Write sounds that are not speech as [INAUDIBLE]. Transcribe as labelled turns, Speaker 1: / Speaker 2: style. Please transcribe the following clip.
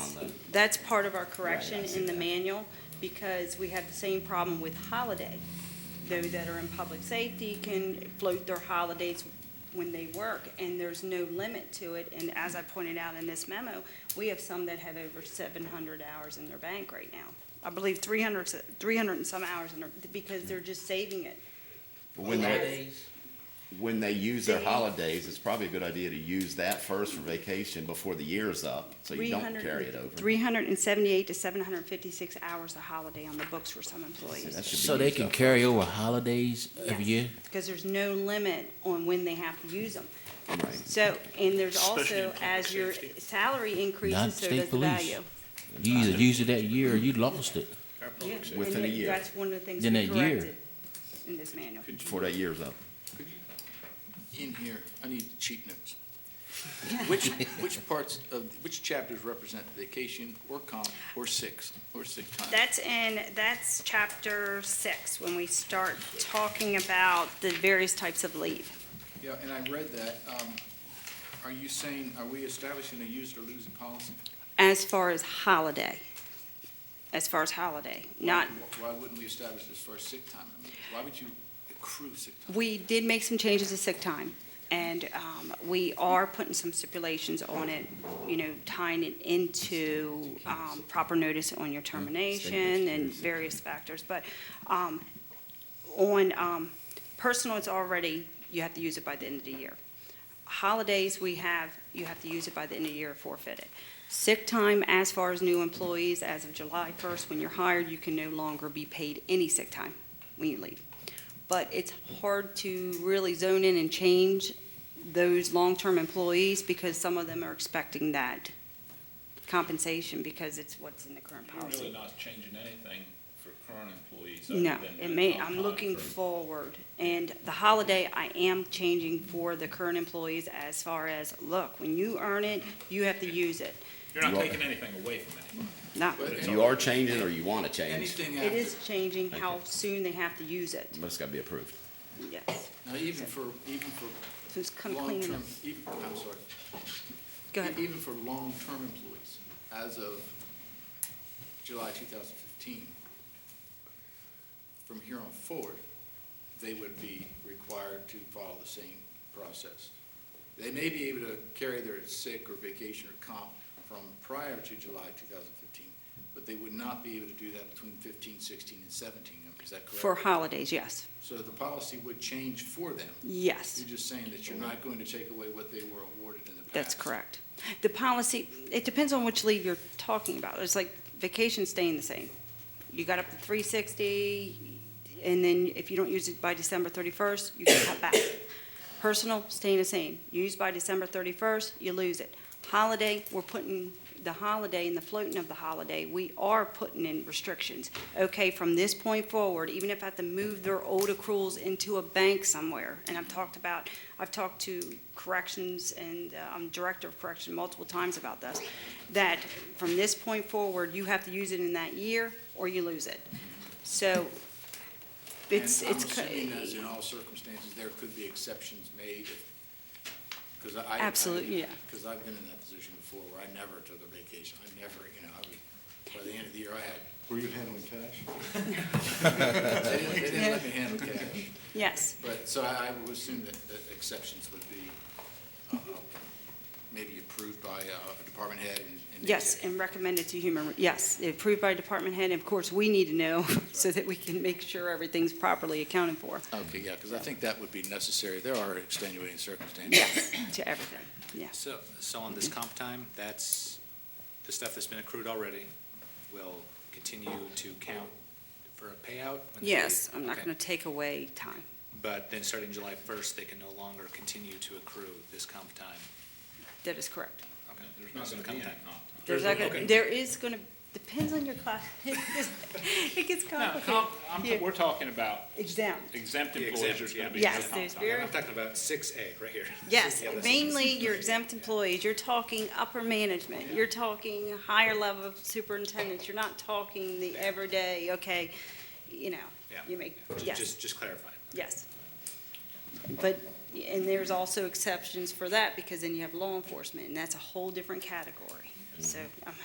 Speaker 1: That's part of our correction
Speaker 2: Right, I see
Speaker 1: in the
Speaker 2: that.
Speaker 1: manual, because we have the same problem with holiday. Those that are in public safety can float their holidays when they work, and there's no limit to it. And as I pointed out in this memo, we have some that have over seven hundred hours in their bank right now. I believe 300 and some hours in their, because they're just saving it.
Speaker 2: When they,
Speaker 3: Holidays,
Speaker 2: when they use their
Speaker 1: They-
Speaker 2: holidays, it's probably a good idea to use that first for vacation before the year's up, so you don't
Speaker 1: 300
Speaker 2: carry it over.
Speaker 1: 378 to 756 hours of holiday on the books for some
Speaker 2: That
Speaker 1: employees.
Speaker 2: should be
Speaker 3: so they
Speaker 2: used
Speaker 3: can
Speaker 2: up.
Speaker 3: carry over holidays every
Speaker 1: Yes.
Speaker 3: year?
Speaker 1: Because there's no limit on when they have to use them.
Speaker 2: Right.
Speaker 1: So, and there's
Speaker 4: Especially in
Speaker 1: also,
Speaker 4: public
Speaker 1: as your
Speaker 4: safety.
Speaker 1: salary increases, so
Speaker 3: state
Speaker 1: does the
Speaker 3: police.
Speaker 1: value.
Speaker 3: You either used it that year or you lost it.
Speaker 4: our
Speaker 1: Yeah,
Speaker 4: public
Speaker 2: Within
Speaker 1: and
Speaker 2: a year.
Speaker 1: That's one of the things
Speaker 3: In
Speaker 1: we
Speaker 3: a year.
Speaker 1: corrected in this manual.
Speaker 2: Before that year's up.
Speaker 5: in here, I need the cheat notes.
Speaker 1: [LAUGHS]
Speaker 5: Which, which parts of, which chapters represent vacation or comp or six, or sick time?
Speaker 1: That's in, that's chapter six, when we start talking about the various types of leave.
Speaker 5: Yeah, and I read that. Um, Are you saying, are we establishing a use or lose policy?
Speaker 1: As far as holiday, as far as holiday,
Speaker 5: Why-
Speaker 1: not
Speaker 5: Why wouldn't we establish this for sick time? I mean, Why would you accrue sick time?
Speaker 1: We did make some changes to sick time, and um, we are putting some stipulations on it, you know, tying it into um, proper notice on your termination and various factors. But um, on um, personal, it's already, you have to use it by the end of the year. Holidays, we have, you have to use it by the end of the year, forfeit it. Sick time, as far as new employees, as of July 1st, when you're hired, you can no longer be paid any sick time when you leave but it's hard to really zone in and change those long-term employees because some of them are expecting that compensation because it's what's in the current
Speaker 6: You're really
Speaker 1: policy.
Speaker 6: not changing anything for current employees. other
Speaker 1: No,
Speaker 6: than
Speaker 1: it
Speaker 6: the
Speaker 1: may,
Speaker 6: comp
Speaker 1: I'm
Speaker 6: time
Speaker 1: looking
Speaker 6: for-
Speaker 1: forward, and the holiday I am changing for the current employees as far as, look, when you earn it, you have to use it.
Speaker 6: You're not
Speaker 2: You are-
Speaker 6: taking anything away from anyone.
Speaker 1: Not,
Speaker 5: But
Speaker 2: If you are changing or you want to change,
Speaker 5: Anything
Speaker 1: it
Speaker 5: after,
Speaker 1: is changing how soon they have to use it,
Speaker 2: but it's got to be approved.
Speaker 1: yes.
Speaker 5: now even for, even for
Speaker 1: So it's kind of cleaning
Speaker 5: long-term,
Speaker 1: up.
Speaker 5: even, I'm sorry.
Speaker 1: Go ahead.
Speaker 5: E, Even for long-term employees, as of July 2015, from here on forward, they would be required to follow the same process. They may be able to carry their sick or vacation or comp from prior to July 2015, but they would not be able to do that between 15, 16, and 17. Is that
Speaker 1: For
Speaker 5: correct?
Speaker 1: holidays, yes,
Speaker 5: So the policy would change for them.
Speaker 1: yes.
Speaker 5: You're just saying that you're not going to take away what they were awarded in the past.
Speaker 1: That's correct. The policy, it depends on which leave you're talking about. It's like vacation staying the same. You got up to three sixty, and then if you don't use it by December thirty-first, you can cut back. Personal, staying the same. Used by December thirty-first, you lose it. Holiday, we're putting the holiday and the floating of the holiday, we are putting in restrictions. Okay, from this point forward, even if I have to move their old accruals into a bank somewhere, and I've talked about I've talked to corrections and uh, I'm director of correction multiple times about this, that from this point forward, you have to use it in that year or you lose it. So it's,
Speaker 5: And
Speaker 1: it's. eh, co-
Speaker 5: I'm assuming, as in all circumstances, there could be exceptions made, because I.
Speaker 1: Absolutely, yeah.
Speaker 5: Because I've been in that position before, where I never took a vacation, I never, you know, I was, by the end of the year, I had,
Speaker 7: Were you handling cash?
Speaker 5: [LAUGHS] they didn't, they didn't let me handle cash.
Speaker 1: Yes,
Speaker 5: But, so I, I would assume that, that exceptions would be, uh, maybe approved by uh, a department head and. and
Speaker 1: yes,
Speaker 5: executive.
Speaker 1: and recommended to human, yes, approved by department head. And of course, we need to know [LAUGHS] so that we can make sure everything's properly accounted for.
Speaker 5: Okay, yeah, because I think that would be necessary, there are extenuating circumstances.
Speaker 1: Yes, to everything, yes.
Speaker 8: So, so on this
Speaker 1: Mm-hmm.
Speaker 8: comp time, that's, the stuff that's been accrued already will continue to count for a payout? when they
Speaker 1: Yes,
Speaker 8: leave?
Speaker 1: I'm not
Speaker 8: Okay.
Speaker 1: going to take away time.
Speaker 8: But then starting July first, they can no longer continue to accrue this comp time?
Speaker 1: That is correct.
Speaker 8: Okay.
Speaker 6: There's not
Speaker 8: So
Speaker 6: gonna
Speaker 8: the
Speaker 6: be any
Speaker 8: comp
Speaker 6: comp
Speaker 8: time.
Speaker 6: time.
Speaker 1: There's
Speaker 8: There's
Speaker 1: not gonna,
Speaker 8: okay.
Speaker 1: there is gonna, depends on your class. [LAUGHS] It gets- It gets
Speaker 6: No,
Speaker 1: complicated.
Speaker 6: comp, I'm,
Speaker 1: Yeah.
Speaker 6: we're talking about
Speaker 1: Exempt.
Speaker 6: exempt
Speaker 8: The
Speaker 6: employees,
Speaker 8: exempt,
Speaker 6: there's gonna
Speaker 8: yeah.
Speaker 6: be no
Speaker 1: Yes,
Speaker 6: comp
Speaker 1: there's
Speaker 6: time.
Speaker 1: very-
Speaker 8: I'm talking about six A, right here.
Speaker 1: Yes,
Speaker 8: Yeah, that's-
Speaker 1: mainly your exempt employees. You're talking upper management. You're talking higher level of superintendents. You're not talking the everyday, okay, you know,
Speaker 8: Yeah.
Speaker 1: you make,
Speaker 8: Ju-
Speaker 1: yes,
Speaker 8: Just, just clarifying.
Speaker 1: yes. But, and there's also exceptions for that because then you have law enforcement and that's a whole different category. So I'm